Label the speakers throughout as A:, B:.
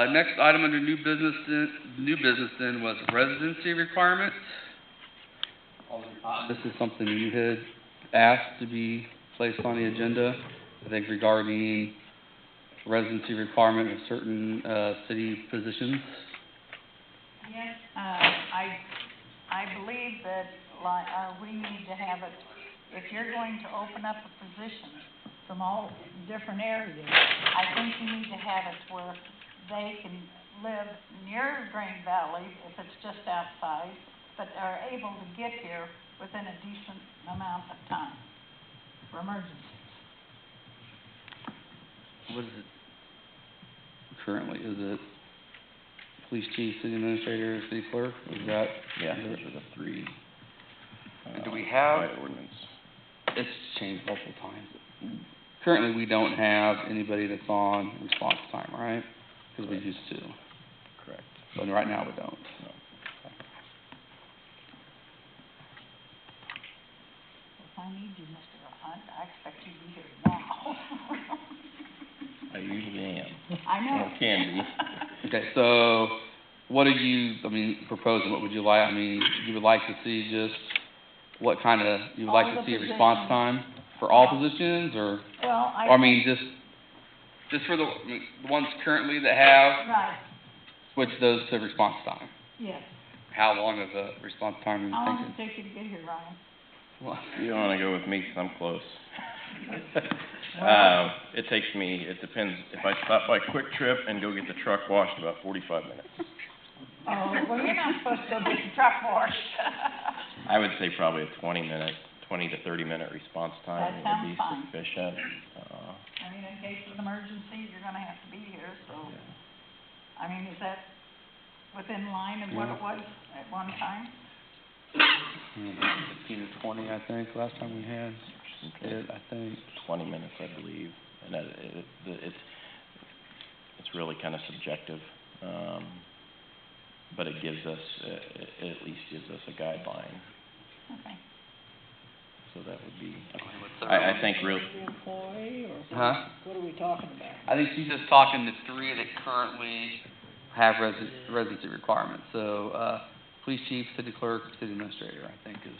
A: Uh, next item under new business, then- new business then was residency requirements. Alderman Cotton, This is something you had asked to be placed on the agenda, I think regarding residency requirement of certain, uh, city positions.
B: Yes, uh, I, I believe that, like, uh, we need to have it, if you're going to open up a position from all different areas, I think you need to have it where they can live near Green Valley, if it's just outside, but are able to get here within a decent amount of time for emergencies.
A: What is it currently? Is it police chief, city administrator, city clerk? Is that?
C: Yeah, those are the three.
A: And do
C: uh,
A: we have-
C: by ordinance.
A: It's changed multiple times. Currently, we don't have anybody that's on response time, right? Cause we
C: Correct.
A: used to,
C: Correct.
A: but right now we don't.
B: If I need you, Mr. Hunt, I expect you to be here now.
C: I usually am.
B: I know.
C: Well, can be.
A: Okay, so what are you, I mean, proposing? What would you like? I mean, you would like to see just what kind of, you would like
B: All
A: to
B: the
A: see response
B: positions.
A: time for all positions or?
B: Well, I.
A: Or I mean, just, just for the, I mean, the ones currently that have,
B: Right,
A: switch those to response time.
B: yes.
A: How long of a response time are
B: How
A: you
B: long does
A: thinking?
B: it take you to get here, Ryan?
A: Well,
C: You don't wanna go with me, 'cause I'm close.
B: Wow.
C: Um, it takes me, it depends, if I stop by Quick Trip and go get the truck washed, about forty-five minutes.
B: Oh, well, you're not supposed to be the truck wash.
C: I would say probably a twenty-minute, twenty to thirty-minute response
B: That
C: time would
B: sounds
C: be
B: fine.
C: sufficient. Uh,
B: I mean, in case of an emergency, you're gonna have to be here, so, I mean, is that within line of what it was at one time?
A: fifteen to twenty, I think, last time we had it, I think.
C: twenty minutes, I believe, and that, it, it- the- it's, it's really kind of subjective, um, but it gives us, it, it at least gives us a guideline,
B: Okay.
C: so that would be, I, I think real,
D: employee, or
A: Huh?
D: what are we talking about?
A: I think she's just talking the three that currently have resi- residency requirements, so, uh, police chief, city clerk, city administrator, I think is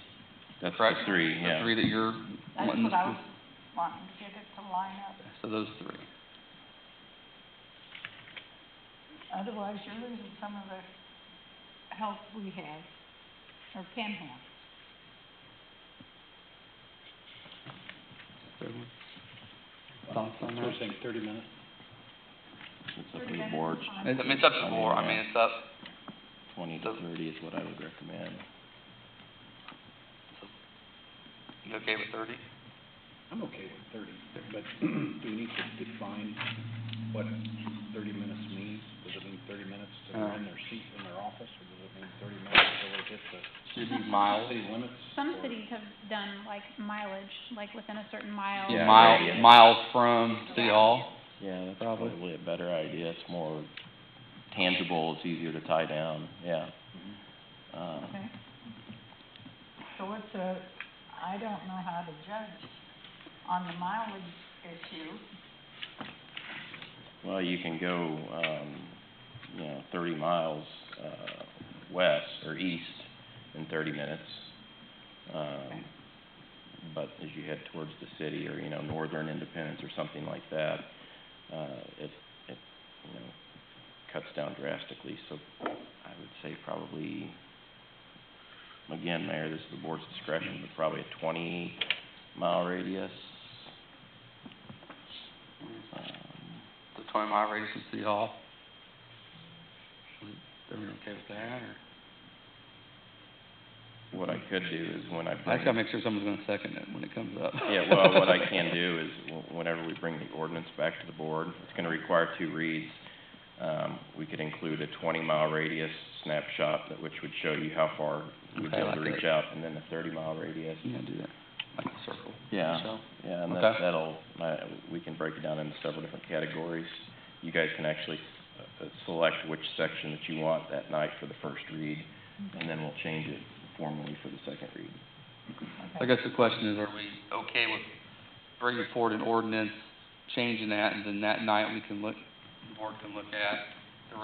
C: that's the
A: Correct.
C: three,
A: the
C: yeah.
A: three that you're
B: That's
A: wanting
B: what I
A: to,
B: was
A: Mm-hmm.
B: wanting to get it to line up,
A: so those three.
B: otherwise you're losing some of the help we have, or can have.
A: Third one. Thoughts on that?
C: It's up to the board,
A: It's, I mean, it's up to the
C: I mean,
A: board, I mean,
C: yeah.
A: it's up,
C: twenty to thirty is what I would recommend.
A: you okay with thirty?
E: I'm okay with thirty, but do we need to define what thirty minutes means? Does it mean thirty minutes to
A: Uh.
E: in their seat in their office, or does it mean thirty minutes till they get to
A: Should be miles.
E: city limits?
F: Some
E: or-
F: cities have done like mileage, like within a certain mile.
C: Yeah.
A: Mile,
C: Yeah.
A: miles from City Hall?
C: Yeah, that's
A: Probably.
C: probably a better idea, it's more tangible, it's easier to tie down, yeah. Uh,
B: Okay. So what's a, I don't know how to judge on the mileage issue.
C: Well, you can go, um, you know, thirty miles, uh, west or east in thirty minutes. Um, but as you head towards the city or, you know, northern Independence or something like that, uh, it, it, you know, cuts down drastically. So I would say probably, again, Mayor, this is the board's discretion, but probably a twenty mile radius. Um,
A: The twenty mile radius from City Hall? Everyone okay with that, or?
C: What I could do is when I
A: I
C: bring,
A: just gotta make sure someone's gonna second it when it comes up.
C: yeah, well, what I can do is w- whenever we bring the ordinance back to the board, it's gonna require two reads. Um, we could include a twenty mile radius snapshot that, which would show you how far we'd be
A: Okay,
C: able
A: like
C: to
A: a-
C: reach out, and then a thirty mile radius.
A: You know, do that, like a circle.
C: Yeah.
A: So-
C: Yeah, and
A: Okay.
C: that, that'll, my, we can break it down into several different categories. You guys can actually, uh, uh, select which section that you want that night for the first read, and then we'll change it formally for the second read.
A: I guess the question is, are we okay with bringing forward an ordinance, changing that, and then that night we can look, the board can look at